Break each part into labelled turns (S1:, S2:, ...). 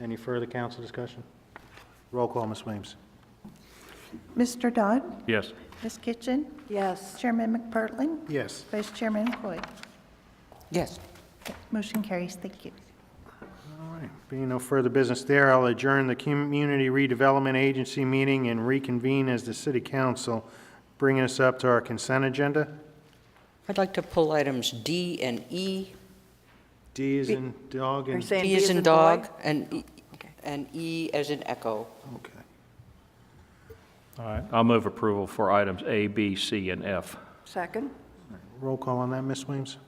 S1: Any further council discussion? Roll call, Ms. Williams.
S2: Mr. Dodd?
S3: Yes.
S2: Ms. Kitchen?
S4: Yes.
S2: Chairman McPartlin?
S1: Yes.
S2: Vice Chairman Hoy?
S4: Yes.
S2: Motion carries. Thank you.
S1: All right, being no further business there, I'll adjourn the Community Redevelopment Agency meeting and reconvene as the city council, bringing us up to our consent agenda.
S5: I'd like to pull items D and E.
S1: D is in dog
S4: Are you
S1: and,
S4: saying
S5: D
S4: B
S5: as
S4: is
S5: in
S4: in
S5: dog,
S4: boy?
S5: and, E- and E as in echo.
S1: okay.
S3: All right, I'll move approval for items A, B, C, and F.
S4: Second?
S1: Roll call on that, Ms. Williams?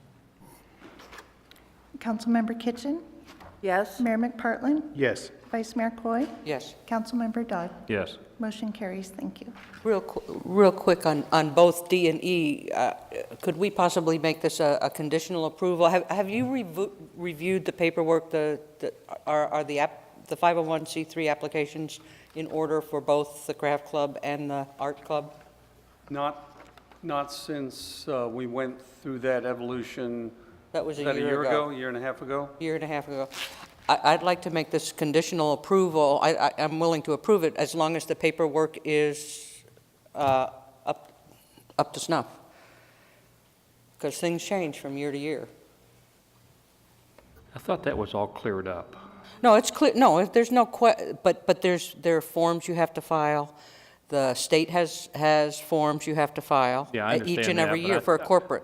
S2: Councilmember Kitchen?
S4: Yes.
S2: Mayor McPartlin?
S1: Yes.
S2: Vice Mayor Coy?
S5: Yes.
S2: Councilmember Dodd?
S3: Yes.
S2: Motion carries. Thank you.
S5: Real, qu- real quick on, on both D and E, uh, could we possibly make this a, a conditional approval? Have, have you revo- reviewed the paperwork, the, the- are, are the app, the 501c3 applications in order for both the craft club and the art club?
S6: Not, not since uh, we went through that evolution.
S5: That was a
S6: About
S5: year ago.
S6: a year and a half ago?
S5: year and a half ago. I- I'd like to make this conditional approval. I- I- I'm willing to approve it as long as the paperwork is uh, up up to snuff, because things change from year to year.
S3: I thought that was all cleared up.
S5: No, it's clear, no, if there's no que, but, but there's, there are forms you have to file. The state has, has forms you have to file.
S3: Yeah, I
S5: uh, Each
S3: understand
S5: and
S3: that,
S5: every
S3: but I-
S5: year for a corporate.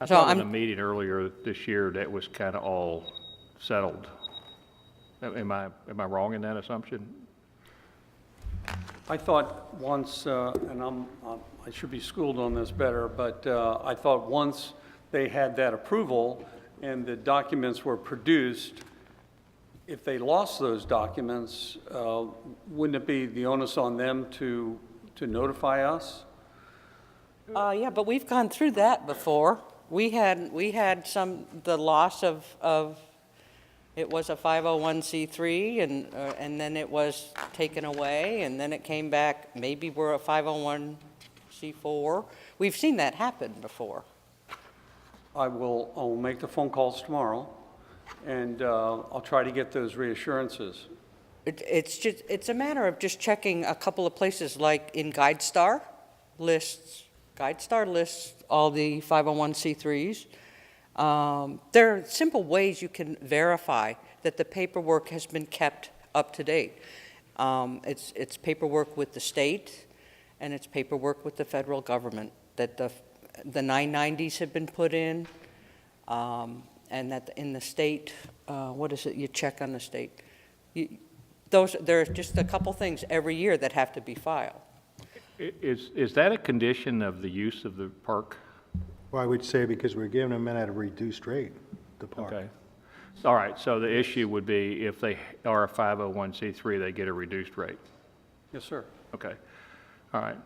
S3: I
S5: So
S3: thought in
S5: I'm-
S3: the meeting earlier this year, that was kind of all settled. Am I, am I wrong in that assumption?
S6: I thought once, uh, and I'm, I'm- I should be schooled on this better, but uh, I thought once they had that approval and the documents were produced, if they lost those documents, uh, wouldn't it be the onus on them to, to notify us?
S5: Uh, yeah, but we've gone through that before. We had, we had some, the loss of, of, it was a 501c3 and, uh, and then it was taken away and then it came back, maybe we're a 501c4. We've seen that happen before.
S6: I will, I'll make the phone calls tomorrow, and uh, I'll try to get those reassurances.
S5: It, it's just, it's a matter of just checking a couple of places, like in GuideStar lists, GuideStar lists all the 501c3s. Um, There are simple ways you can verify that the paperwork has been kept up to date. Um, It's, it's paperwork with the state, and it's paperwork with the federal government, that the, the 990s have been put in, um, and that in the state, uh, what is it, you check on the state? You- Those, there are just a couple things every year that have to be filed.
S3: I- Is, is that a condition of the use of the park?
S1: Well, I would say because we're giving them in at a reduced rate, the park.
S3: Okay. All right, so the issue would be if they are a 501c3, they get a reduced rate.
S6: Yes, sir.
S3: Okay. All right.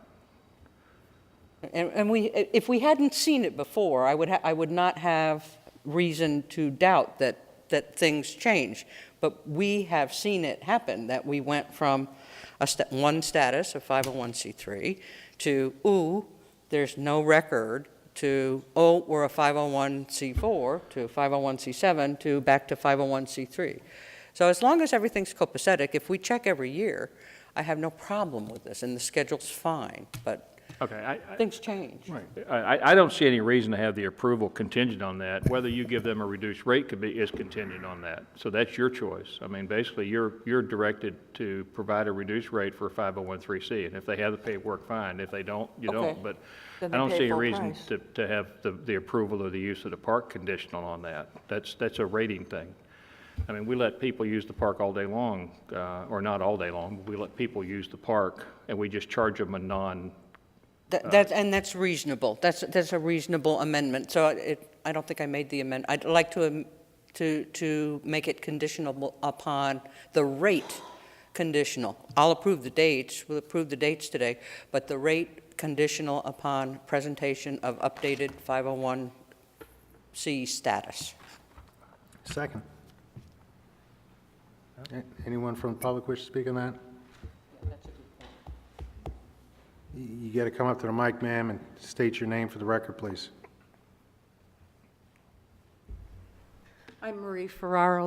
S5: And, and we, if we hadn't seen it before, I would, ha- I would not have reason to doubt that, that things change. But we have seen it happen, that we went from a sta- one status oh of 501c3 to, ooh, there's no record, to, oh, we're a 501c4, to 501c7, to back to 501c3. So as long as everything's copacetic, if we check every year, I have no problem with this, and the schedule's fine, but
S3: Okay, I, I-
S5: Things change.
S3: I, I- I don't see any reason to have the approval contingent on that. Whether you give them a reduced rate could be, is contingent on that. So that's your choice. I mean, basically, you're, you're directed to provide a reduced rate for 501(c)(3). And if they have the paperwork, fine. If they don't, you
S5: Okay.
S3: don't. But I
S4: Then they
S3: don't
S4: pay
S3: see any
S4: full
S3: reason
S4: price.
S3: to, to have the, the approval or the use of the park conditional on that. That's, that's a rating thing. I mean, we let people use the park all day long, uh, or not all day long. We let people use the park, and we just charge them a non,
S5: That, that's- and that's reasonable. That's, that's a reasonable amendment. So it, I don't think I made the amendment. I'd like to, am- to, to make it conditional upon the rate conditional. I'll approve the dates, we'll approve the dates today, but the rate conditional upon presentation of updated 501C status.
S1: Second. A- Anyone from the public wish to speak on that? Y- You got to come up to the mic, ma'am, and state your name for the record, please.
S4: I'm Marie Ferraro,